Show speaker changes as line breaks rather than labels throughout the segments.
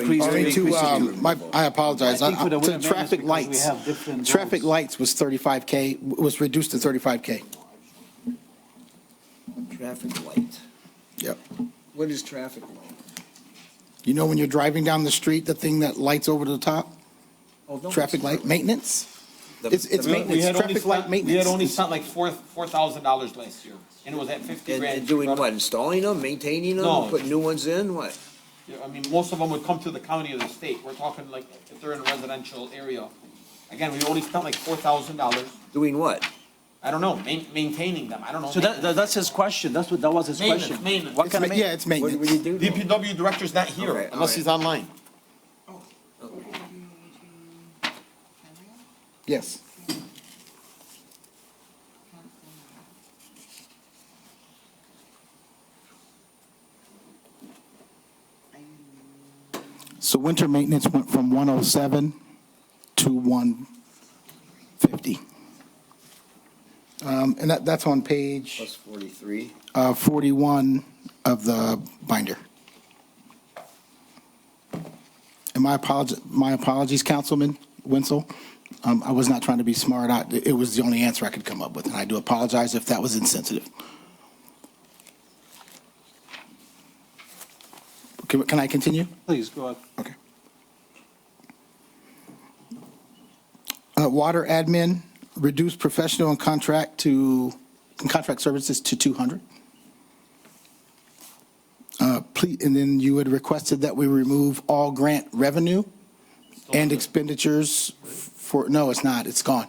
Increase-
Only to,
increase it
um, my, I apologize.
I think
I-
for the
I-
Win
to
Amendment,
Traffic
because we
lights,
have different
traffic
rules.
lights was 35K, was reduced to 35K.
Traffic light.
Yep.
What is traffic light?
You know, when you're driving down the street, the thing that lights over the top,
Oh, no,
traffic
it's
light,
not.
maintenance?
The-
It's, it's
the-
maintenance, traffic light
We had only
maintenance.
spent like four, four thousand dollars last year, and it was at fifty
And
grand.
and doing what, installing them, maintaining them,
No.
putting new ones in, what?
Yeah, I mean, most of them would come through the county or the state, we're talking like, if they're in a residential area. Again, we only spent like four thousand dollars,
Doing what?
I don't know, main, maintaining them, I don't know.
So that, that- that's his question, that's what, that was his
Maintenance,
question.
maintenance.
What
It's
kind of
ma- Yeah,
maintenance?
it's
What
maintenance.
do you do? to 'em?
DPW director's not here,
Okay, all
unless
right.
he's online.
Yes. So winter maintenance went from 107 to 150. Um, And that, that's on page
Plus forty-three.
uh, 41 of the binder. And my apologies, my apologies, Councilman Wenzel. Um, I was not trying to be smart. I- It was the only answer I could come up with, and I do apologize if that was insensitive. Can can I continue?
Please, go ahead.
Okay. Uh, Water admin, reduce professional and contract to, and contract services to 200. Uh, Please, and then you had requested that we remove all grant revenue and expenditures for, no, it's not, it's gone.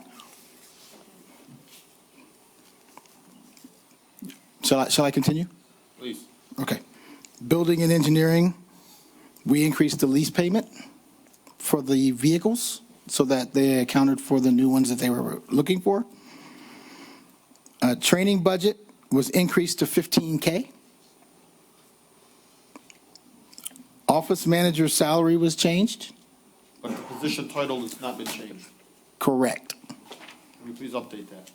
Shall I, shall I continue?
Please.
Okay. Building and engineering, we increased the lease payment for the vehicles so that they accounted for the new ones that they were looking for. Uh, Training budget was increased to 15K. Office manager salary was changed?
But the position title has not been changed,
Correct.
can you please update that?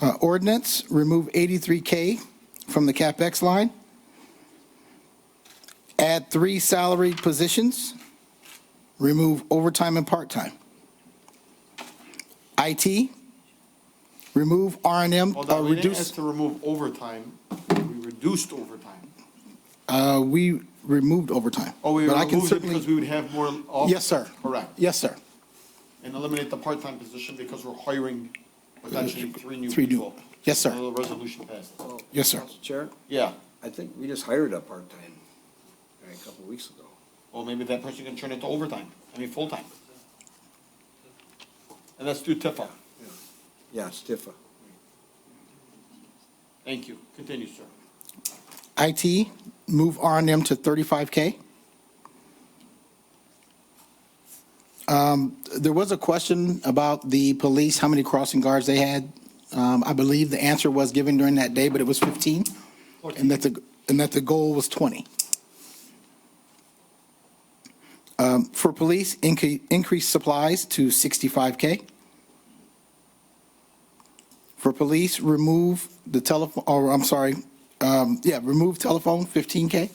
Uh, Ordinance, remove 83K from the CapEx line. Add three salaried positions. Remove overtime and part-time. IT, remove R and M,
Hold
uh,
on, we didn't ask
reduce,
to remove overtime, we reduced overtime.
uh, we removed overtime.
Oh, we
But I can
removed it
certainly-
because we would have more off.
Yes, sir.
Correct.
Yes, sir.
And eliminate the part-time position because we're hiring potentially three new
Three new-
people.
Yes, sir.
Until the resolution passes.
Yes, sir.
Council Chair,
Yeah,
I think we just hired a part-time guy a couple weeks ago.
well, maybe that person can turn it to overtime, I mean, full-time. And that's through TIFA.
Yeah, Stiffa.
Thank you. Continue, sir.
IT, move R and M to 35K. Um, There was a question about the police, how many crossing guards they had. Um, I believe the answer was given during that day, but it was 15, and that the, and that the goal was 20. Um, For police, incre- increase supplies to 65K. For police, remove the telephone, or I'm sorry, um, yeah, remove telephone, 15K.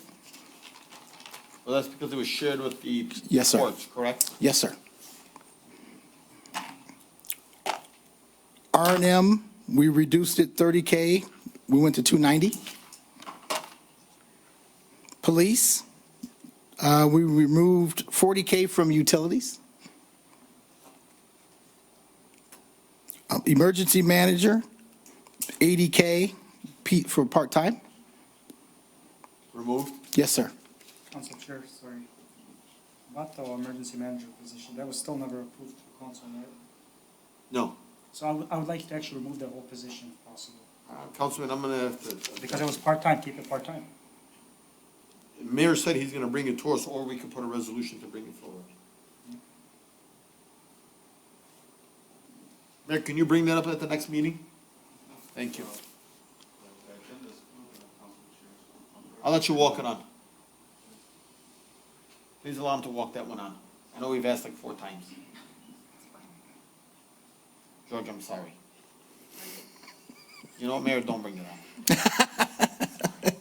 Well, that's because it was shared with the.
Yes, sir.
courts, Correct?
Yes, sir. R and M, we reduced it 30K, we went to 290. Police, uh, we removed 40K from utilities. Um, Emergency manager, 80K pe- for part-time.
Removed.
Yes, sir.
Council Chair, sorry. About the emergency manager position, that was still never approved through council, right?
No.
So I would, I would like to actually remove that whole position if possible,
Uh, Councilman, I'm gonna have to.
because it was part-time, keep it part-time.
Mayor said he's gonna bring it to us, or we could put a resolution to bring it forward. Mayor, can you bring that up at the next meeting? Thank you. I'll let you walk it on. Please allow him to walk that one on. I know we've asked like four times. George, I'm sorry. You know what, Mayor, don't bring it on.